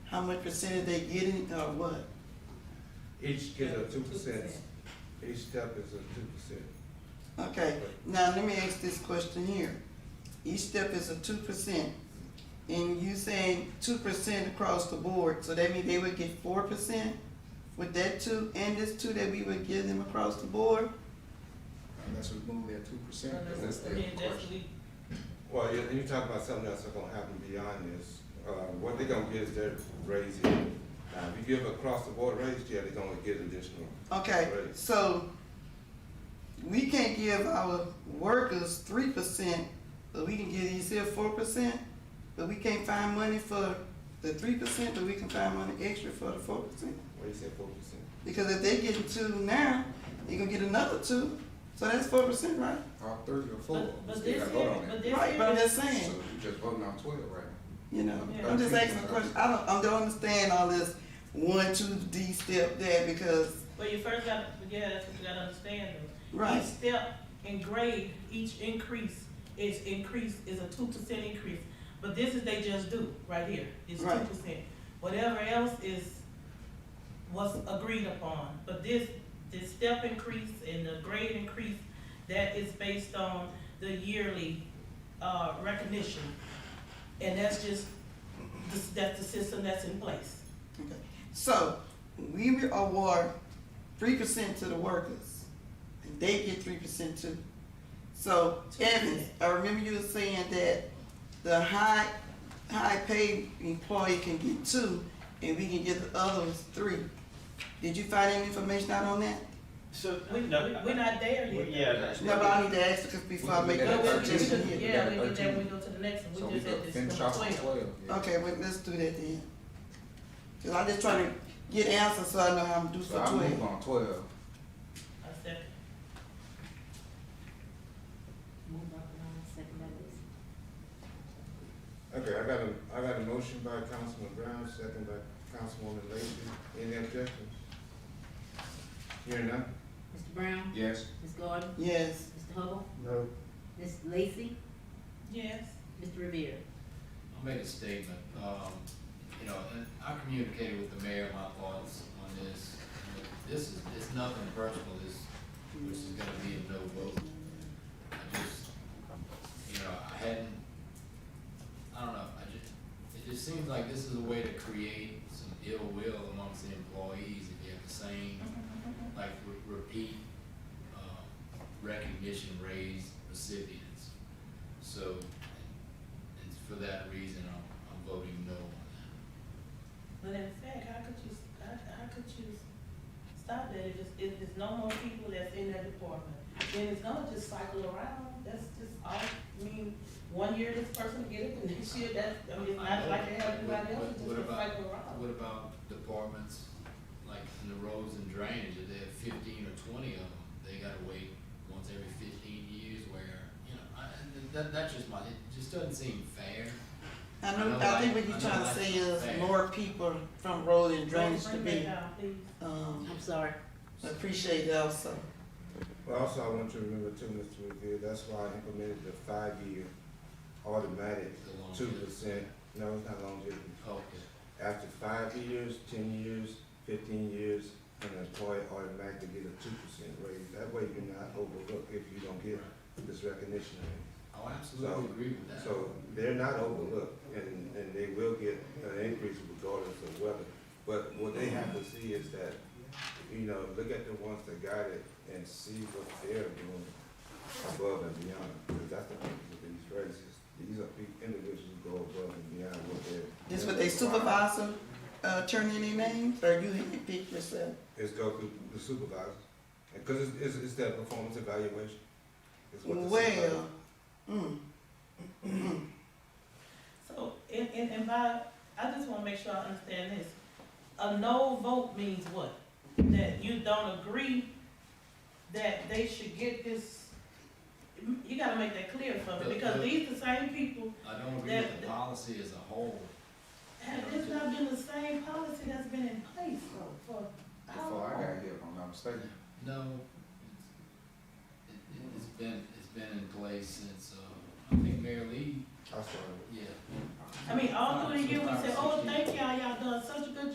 how much percentage they getting or what? Each is a two 2%. percent, each step is a two percent. Okay, now let me ask this question here. Each step is a two percent, and you saying two percent across the board, so that means they would get four percent? With that two and this two that we would give them across the board? Unless we move that two percent, because Yeah, that's the that's question. we- Well, you you talk about something else that's gonna happen beyond this. Uh, what they gonna get is their raise here. Now, if you give across the board raise, yeah, they gonna get additional. Okay, Right. so we can't give our workers three percent, but we can give these here four percent, but we can't find money for the three percent, but we can find money extra for the four percent. What do you say, four percent? Because if they getting two now, they gonna get another two, so that's four percent, right? All three or four, But, we but still this gotta here, vote on but that. this Right, but I'm here- just So saying, you just voting on twelve right you know, now. I'm just asking a question, I don't, I don't understand all this one, two, D step there because, But you first got, yeah, that's what you gotta understand though. right, Each step and grade, each increase is increase, is a two percent increase. But this is they just do, right here, it's two Right. percent. Whatever else is, was agreed upon. But this, this step increase and the grade increase, that is based on the yearly, uh, recognition. And that's just, this- that's the system that's in place. Okay, so we will award three percent to the workers, and they get three percent too. So Evans, I remember you were saying that the high, high paid employee can get two, and we can get the others three. Did you find any information out on that? So, We, we- we're not there yet. Yeah, that's- No, but I need to ask because before I make We- we- that But we- we- we just- suggestion here. Yeah, we We get got that, we thirteen. go to the next So one, we we just could at this finish number off with twelve. twelve. yeah. Okay, well, let's do that then. Cause I just trying to get answers so I know how to do for So I move twelve. on twelve. I second. Moved by Brown, second by Wilson. Okay, I got a, I got a motion by Councilman Brown, second by Councilwoman Lacy. Any objection? Hearing none? Mr. Brown? Yes. Ms. Gordon? Yes, Mr. Hubble? No. Ms. Lacy? Yes. Mr. Revere? I'll make a statement, um, you know, and I communicated with the mayor my thoughts on this. This is, it's nothing personal, this, which is gonna be a no vote. I just, you know, I hadn't, I don't know, I just, it just seems like this is a way to create some ill will amongst the employees if you have the same, Mm-hmm, like, re- repeat, um, recognition raise recipients. So, and for that reason, I'm, I'm voting no But on that. in fact, how could you, how, how could you stop that if it's, if there's no more people that's in that department? Then it's gonna just cycle around, that's just all, I mean, one year this person get it, and next year that's, I mean, it's not like they have everybody else, What- it's just what a about- cycle around. What about departments, like in the roads and drainage, if they have fifteen or twenty of them, they gotta wait once every fifteen years where, you know, I, and that, that's just my, it just doesn't seem fair. I know, I think what you're trying to say is more people from road and drainage to Bring be, that down, please. um, I'm sorry. appreciated also. Well, also, I want you to remember too, Mr. Revere, that's why I implemented the five-year automatic the long- two percent. No, it's not longevity. Okay. After five years, ten years, fifteen years, an employee automatically get a two percent raise. That way you're not overlooked if you don't get this recognition. Oh, I absolutely agree with that. So they're not overlooked and, and they will get an increase regardless of weather. But what they have to see is that, you know, look at the ones that got it and see what they're doing above and beyond. Because that's the purpose of these raises. These are people, individuals who go above and beyond what they're. Is what they supervisor, uh, turn in their names, or you had to pick yourself? It's go through the supervisor, because it's, it's, it's that performance evaluation. It's what the supervisor- Well, mm, So, and, and, and by, I just wanna make sure I understand this. A no vote means what? That you don't agree that they should get this, you gotta make that clear for me, because these the same people, I don't agree That- with the policy as a whole. have this not been the same policy that's been in place for, for how Before long? I got here, if I'm not mistaken. No, it's, it, it's been, it's been in place since, uh, I think Mayor Lee, I started. yeah. I mean, all through the year, we say, oh, thank y'all, y'all done